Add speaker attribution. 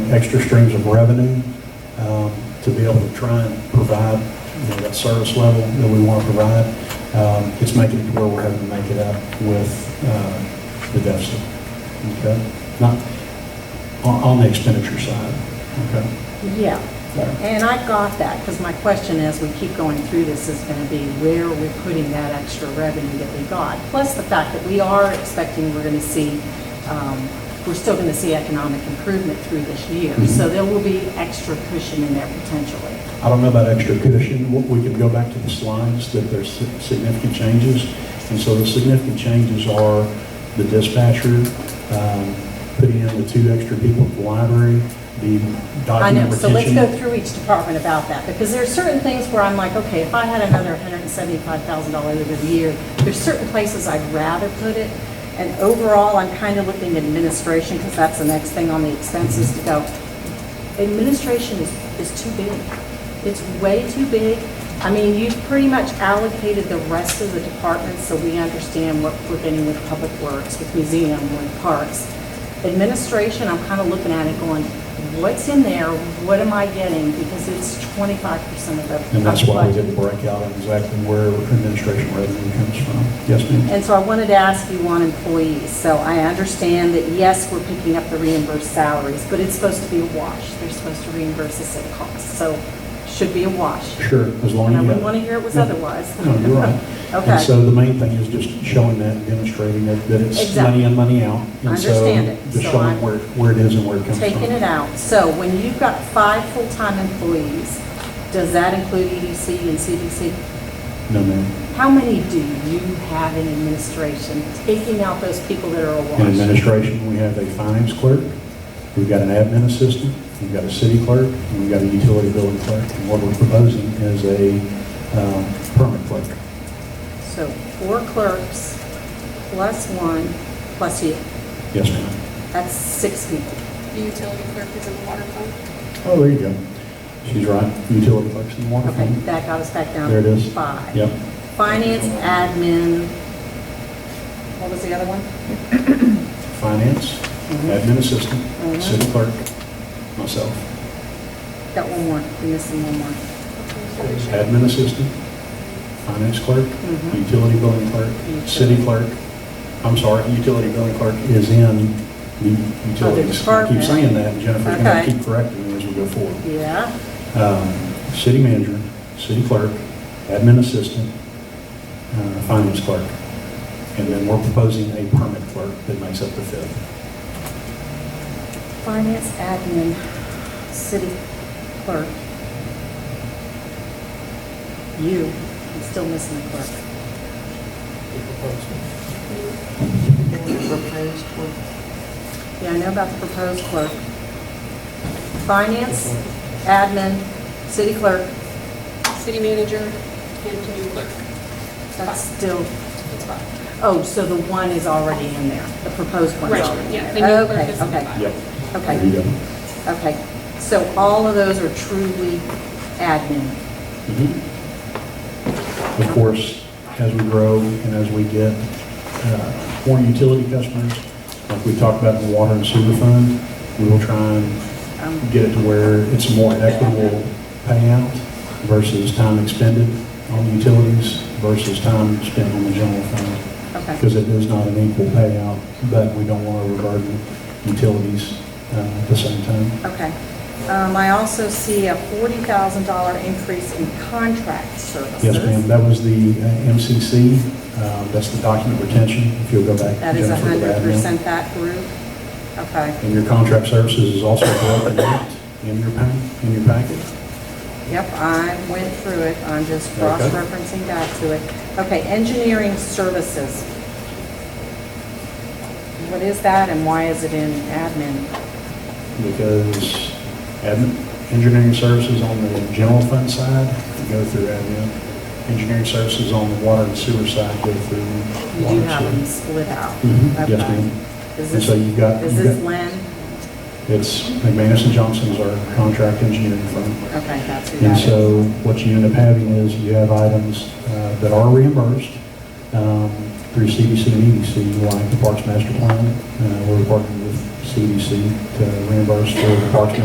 Speaker 1: extra streams of revenue um, to be able to try and provide, you know, that service level that we want to provide. Um, It's making it to where we're having to make it up with uh, the deficit, okay? Not, on on the expenditure side, okay?
Speaker 2: Yeah. And I got that, because my question as we keep going through this is going to be where we're putting that extra revenue that we got. Plus the fact that we are expecting we're going to see, um, we're still going to see economic improvement through this year.
Speaker 1: Mhm.
Speaker 2: So there will be extra cushion in there potentially.
Speaker 1: I don't know about extra cushion, W- we can go back to the slides, that there's si- significant changes. And so the significant changes are the dispatcher, um, putting in the two extra people at the library, the
Speaker 2: I
Speaker 1: document
Speaker 2: know, so let's
Speaker 1: retention.
Speaker 2: go through each department about that, because there are certain things where I'm like, okay, if I had another $175,000 over the year, there's certain places I'd rather put it, and overall, I'm kind of looking at administration, because that's the next thing on the expenses to go. Administration is, is too big. It's way too big. I mean, you've pretty much allocated the rest of the departments, so we understand what we're getting with Public Works, with Museum, with Parks administration, I'm kind of looking at it going, what's in there? What am I getting? Because it's twenty-five percent of the.
Speaker 1: And that's why we
Speaker 2: of the
Speaker 1: didn't
Speaker 2: budget.
Speaker 1: break out exactly where administration revenue comes from. Yes, ma'am?
Speaker 2: And so I wanted to ask you on employees. So I understand that, yes, we're picking up the reimbursed salaries, but it's supposed to be a wash. They're supposed to reimburse us at cost, so should be a wash.
Speaker 1: Sure, as long as.
Speaker 2: And I
Speaker 1: you
Speaker 2: wouldn't
Speaker 1: have-
Speaker 2: want to hear it was
Speaker 1: No.
Speaker 2: otherwise.
Speaker 1: No, you're right.
Speaker 2: Okay.
Speaker 1: And so the main thing is just showing that, and demonstrating that, that it's money
Speaker 2: Exactly.
Speaker 1: in, money out. And so
Speaker 2: Understand it.
Speaker 1: Just
Speaker 2: So
Speaker 1: showing
Speaker 2: I'm
Speaker 1: where, where it is and where it comes from.
Speaker 2: taking it out. So when you've got five full-time employees, does that include EDC and CDC?
Speaker 1: No, ma'am.
Speaker 2: How many do you have in administration, taking out those people that are
Speaker 1: In
Speaker 2: awash?
Speaker 1: administration, we have a finance clerk, we've got an admin assistant, we've got a city clerk, and we've got a utility billing clerk. And what we're proposing is a um, permit clerk.
Speaker 2: So four clerks, plus one, plus you.
Speaker 1: Yes, ma'am.
Speaker 2: That's six people.
Speaker 3: The utility clerk is in the water fund.
Speaker 1: Oh, there you go. She's right, utility clerks and water
Speaker 2: Okay,
Speaker 1: fund.
Speaker 2: that got us back down
Speaker 1: There it
Speaker 2: to
Speaker 1: is.
Speaker 2: five.
Speaker 1: Yep.
Speaker 2: Finance, admin, what was the other one?
Speaker 1: Finance, admin assistant,
Speaker 2: Mhm.
Speaker 1: city clerk, myself.
Speaker 2: Got one more, we're missing one more.
Speaker 1: Admin assistant, finance clerk,
Speaker 2: Mhm.
Speaker 1: utility billing clerk, city clerk. I'm sorry, utility billing clerk is in the utilities. I keep
Speaker 2: department.
Speaker 1: saying that, and Jennifer's going to
Speaker 2: Okay.
Speaker 1: keep correcting me as we go forward.
Speaker 2: Yeah,
Speaker 1: Um, City manager, city clerk, admin assistant, uh, finance clerk. And then we're proposing a permit clerk that makes up the fifth.
Speaker 2: finance, admin, city clerk. You, I'm still missing the clerk. Yeah, I know about the proposed clerk. Finance, admin, city clerk,
Speaker 3: City manager and new clerk.
Speaker 2: that's still,
Speaker 3: That's fine.
Speaker 2: oh, so the one is already in there, the proposed one's
Speaker 3: Right,
Speaker 2: already in
Speaker 3: yeah,
Speaker 2: there.
Speaker 3: the new clerk
Speaker 2: Okay,
Speaker 3: is in the
Speaker 2: okay,
Speaker 3: bottom.
Speaker 1: Yep.
Speaker 2: Okay.
Speaker 1: There you go.
Speaker 2: Okay, so all of those are truly admin.
Speaker 1: Of course, as we grow and as we get uh, more utility customers, like we talked about in the water and sewer fund, we will try and
Speaker 2: Um,
Speaker 1: get it to where it's a more equitable payout versus time expended on utilities versus time spent on the general fund,
Speaker 2: Okay,
Speaker 1: because it is not an equal payout, but we don't want to overburden utilities uh, at the same time.
Speaker 2: okay. Um, I also see a $40,000 increase in contract services.
Speaker 1: Yes, ma'am, that was the uh, MCC, uh, that's the document retention, if you'll go back.
Speaker 2: That is
Speaker 1: Jennifer, to that now.
Speaker 2: 100% that group? Okay,
Speaker 1: And your contract services is also broken out in your pack, in your packet.
Speaker 2: yep, I went through it, I'm just
Speaker 1: Okay.
Speaker 2: cross-referencing back to it. Okay, engineering services. What is that and why is it in admin?
Speaker 1: Because admin, engineering services on the general fund side go through admin. Engineering services on the water and sewer side go through
Speaker 2: You
Speaker 1: water
Speaker 2: do
Speaker 1: and
Speaker 2: have them
Speaker 1: sewer.
Speaker 2: split out.
Speaker 1: Mhm, yes,
Speaker 2: Okay.
Speaker 1: ma'am.
Speaker 2: Is
Speaker 1: And so
Speaker 2: this,
Speaker 1: you've got,
Speaker 2: is
Speaker 1: you've
Speaker 2: this
Speaker 1: got-
Speaker 2: Lynn?
Speaker 1: it's McManus and Johnson is our contract engineering firm.
Speaker 2: Okay, that's who
Speaker 1: And
Speaker 2: that is.
Speaker 1: so what you end up having is you have items uh, that are reimbursed um, through CDC and E EDC, like the Parks Master Plan. Uh, We're working with CDC to reimburse for the Parks